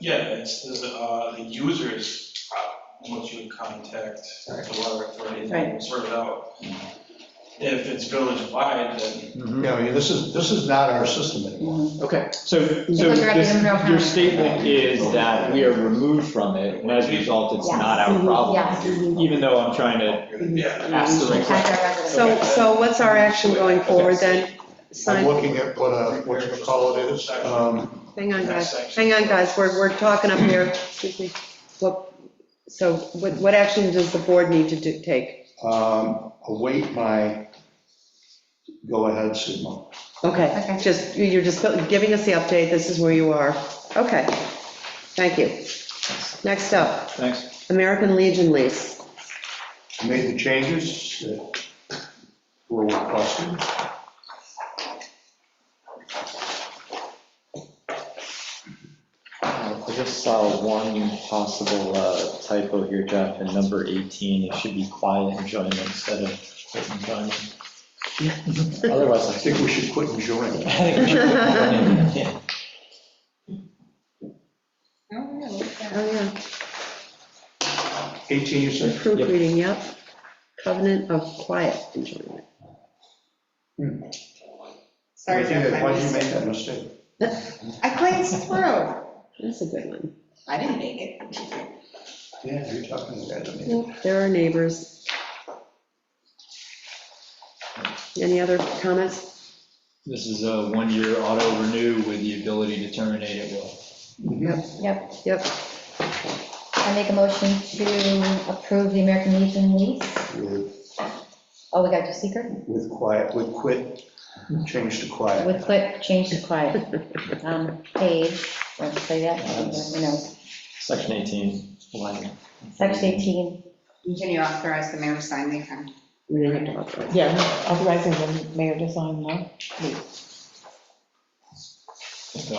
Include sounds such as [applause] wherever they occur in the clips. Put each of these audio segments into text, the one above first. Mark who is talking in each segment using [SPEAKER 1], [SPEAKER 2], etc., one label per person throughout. [SPEAKER 1] Yeah, it's the, uh, the users, uh, once you would contact the water authority, they will sort it out. If it's village-wide, then
[SPEAKER 2] Yeah, I mean, this is, this is not our system
[SPEAKER 3] Mm-hmm.
[SPEAKER 4] Mm-hmm.
[SPEAKER 2] anymore.
[SPEAKER 5] Okay, so, so
[SPEAKER 4] Because we're at the
[SPEAKER 5] this-
[SPEAKER 4] end of our
[SPEAKER 5] your
[SPEAKER 4] time.
[SPEAKER 5] statement is that we are removed from it, and as a result, it's not our problem,
[SPEAKER 4] Yes. Mhm.
[SPEAKER 5] even though I'm trying to
[SPEAKER 1] yeah.
[SPEAKER 5] ask the right
[SPEAKER 4] As
[SPEAKER 5] question.
[SPEAKER 4] our residents.
[SPEAKER 3] So, so what's our action going forward then?
[SPEAKER 2] I'm
[SPEAKER 3] Sign,
[SPEAKER 2] looking at what a, what you call it is. Um,
[SPEAKER 3] hang on,
[SPEAKER 1] Next
[SPEAKER 3] guys,
[SPEAKER 1] section.
[SPEAKER 3] hang on, guys, we're, we're talking up here, excuse me. What, so what, what action does the board need to do, take?
[SPEAKER 2] um, Await my go-ahead signal.
[SPEAKER 3] Okay,
[SPEAKER 4] Okay.
[SPEAKER 3] just, you- you're just giving us the update, this is where you are. Okay, thank you. Next up,
[SPEAKER 5] Thanks.
[SPEAKER 3] American Legion lease.
[SPEAKER 2] I Made the changes that were requested.
[SPEAKER 5] Uh, I just saw one possible uh, typo here, Jeff, in number 18, it should be quiet enjoyment instead of quiet [laughs] enjoyment. Otherwise, I
[SPEAKER 2] I
[SPEAKER 5] [laughs]
[SPEAKER 2] think we should quit enjoying. it.
[SPEAKER 5] think.
[SPEAKER 3] Oh, yeah,
[SPEAKER 2] 18, you
[SPEAKER 3] We're
[SPEAKER 2] said?
[SPEAKER 3] proofreading, yep. Covenant of quiet enjoyment.
[SPEAKER 4] Sorry, Jeff, I
[SPEAKER 2] Why did you
[SPEAKER 4] was-
[SPEAKER 2] make that mistake?
[SPEAKER 4] I glanced through.
[SPEAKER 3] That's a good one.
[SPEAKER 4] I didn't make it.
[SPEAKER 2] Yeah, you're talking about it.
[SPEAKER 3] Yep, There are neighbors. Any other comments?
[SPEAKER 5] [laughs] This is a one-year auto renew with the ability to terminate at will.
[SPEAKER 4] Yep,
[SPEAKER 3] Yep,
[SPEAKER 4] I make a motion to approve the American Legion lease.
[SPEAKER 2] With-
[SPEAKER 4] Oh, we got to secret?
[SPEAKER 2] With quiet, with quit, change to quiet.
[SPEAKER 4] With quick, change to quiet. Um, Page, want to say that? You know,
[SPEAKER 5] Section 18, line.
[SPEAKER 4] Section 18.
[SPEAKER 6] Can you authorize the mayor to sign the account?
[SPEAKER 3] we didn't have to authorize.
[SPEAKER 7] Yeah, authorizing the mayor to sign, no?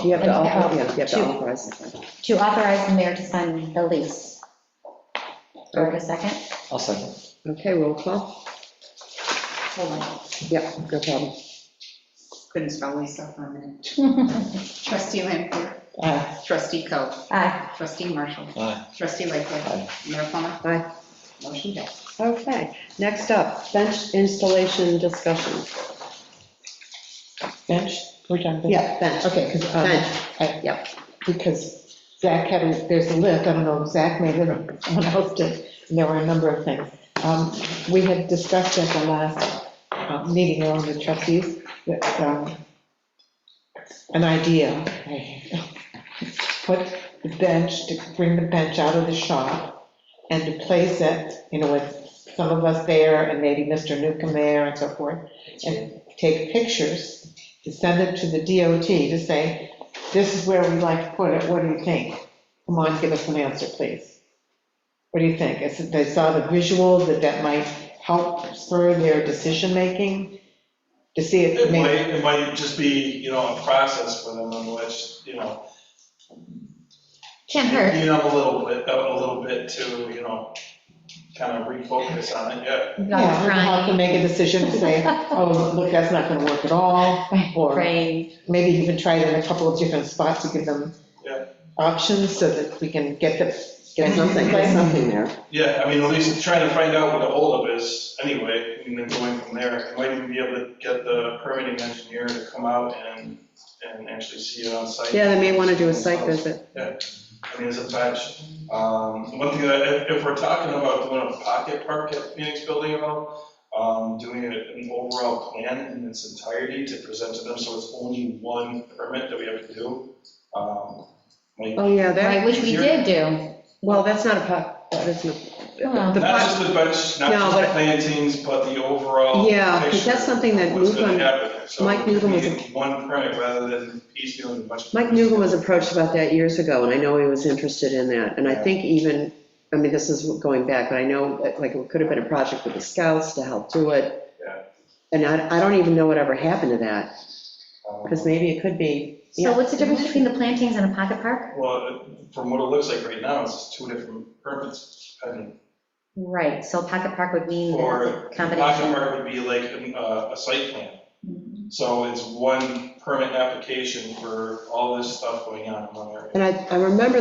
[SPEAKER 3] You have to,
[SPEAKER 4] Okay.
[SPEAKER 3] author- yeah, you have
[SPEAKER 4] Two.
[SPEAKER 3] to authorize.
[SPEAKER 4] To authorize the mayor to sign the lease. Do I have a second?
[SPEAKER 5] I'll second.
[SPEAKER 3] Okay, roll call.
[SPEAKER 4] Hold on.
[SPEAKER 3] Yep, no problem.
[SPEAKER 6] Couldn't spell Lisa for a minute.
[SPEAKER 4] Aye.
[SPEAKER 6] Trustee Lampier.
[SPEAKER 7] Aye.
[SPEAKER 6] Trustee Coe. Trustee Marshall.
[SPEAKER 5] Aye.
[SPEAKER 6] Trustee Lightfoot.
[SPEAKER 5] Aye.
[SPEAKER 6] [laughs] Mayor Plummer.
[SPEAKER 3] Aye.
[SPEAKER 6] Motion passed.
[SPEAKER 3] Okay, next up, bench installation discussion.
[SPEAKER 7] Bench, we're done. bench?
[SPEAKER 3] Yeah, bench.
[SPEAKER 7] Okay, because,
[SPEAKER 3] Bench,
[SPEAKER 7] yeah, because Zach had, a- there's a list, I don't know if Zach made it or someone else did, and there were a number of things. Um, We had discussed at the last uh, meeting along the trustees, that, um, an idea, I- put the bench, to bring the bench out of the shop and to place it, you know, with some of us there and maybe Mr. Newcomb there and so forth, and take pictures to send it to the DOT to say, this is where we like to put it, what do you think? Come on, give us an answer, please. What do you think? Is it- They saw the visuals, that that might help spur their decision-making, to see it.
[SPEAKER 1] It might, it might just be, you know, a process for them on which, you know,
[SPEAKER 4] Can't hurt.
[SPEAKER 1] you know, a little bit, a little bit to, you know, kind of refocus on it, yeah.
[SPEAKER 4] Not
[SPEAKER 7] Yeah, we have to
[SPEAKER 4] crying.
[SPEAKER 7] make a decision to
[SPEAKER 4] [laughs]
[SPEAKER 7] say, oh, look, that's not gonna work at all, or
[SPEAKER 4] Brave.
[SPEAKER 7] maybe even try it in a couple of different spots to give them
[SPEAKER 1] Yeah.
[SPEAKER 7] options, so that we can get the, get
[SPEAKER 1] There's
[SPEAKER 7] something,
[SPEAKER 1] nothing,
[SPEAKER 7] place.
[SPEAKER 3] something there.
[SPEAKER 1] Yeah, I mean, at least trying to find out what the holdup is anyway, and then going from there. I might even be able to get the permitting engineer to come out and, and actually see it on site.
[SPEAKER 3] Yeah, they may want to do a site visit.
[SPEAKER 1] I mean, it's a patch. Um, one thing that, if, if we're talking about doing a pocket park at Phoenix Building at all, um, doing an an overall plan in its entirety to present to them, so it's only one permit that we have to do. Um, like,
[SPEAKER 3] Oh, yeah,
[SPEAKER 4] Right,
[SPEAKER 3] that,
[SPEAKER 4] which we did do.
[SPEAKER 3] well, that's not a, po- that isn't,
[SPEAKER 4] Well.
[SPEAKER 3] the
[SPEAKER 1] Not
[SPEAKER 3] pot,
[SPEAKER 1] just the bench, not
[SPEAKER 3] No,
[SPEAKER 1] just the
[SPEAKER 3] but-
[SPEAKER 1] plantings, but the overall.
[SPEAKER 3] Yeah, 'cause
[SPEAKER 1] picture
[SPEAKER 3] that's something that
[SPEAKER 1] of what's gonna
[SPEAKER 3] Newcomb-
[SPEAKER 1] happen. So
[SPEAKER 3] Mike Newcomb was a-
[SPEAKER 1] we need One permit rather than piecemeal and a bunch. of-
[SPEAKER 3] Mike Newgel was approached about that years ago, and I know he was interested in that. And I think even, I mean, this is going back, but I know, like, it could have been a project with the scouts to help do it.
[SPEAKER 1] Yeah.
[SPEAKER 3] And I, I don't even know what ever happened to that,
[SPEAKER 1] Um,
[SPEAKER 3] because maybe it could be,
[SPEAKER 4] So
[SPEAKER 3] yeah,
[SPEAKER 4] what's the difference between the plantings and a pocket park?
[SPEAKER 1] Well, from what it looks like right now, it's just two different permits pending.
[SPEAKER 4] Right, so a pocket park would mean that
[SPEAKER 1] Or
[SPEAKER 4] it's a
[SPEAKER 1] pocket
[SPEAKER 4] combination.
[SPEAKER 1] park would be like an, uh, a site plan.
[SPEAKER 3] Mm-hmm.
[SPEAKER 1] So it's one permit application for all this stuff going on in one area.
[SPEAKER 3] and I, I remember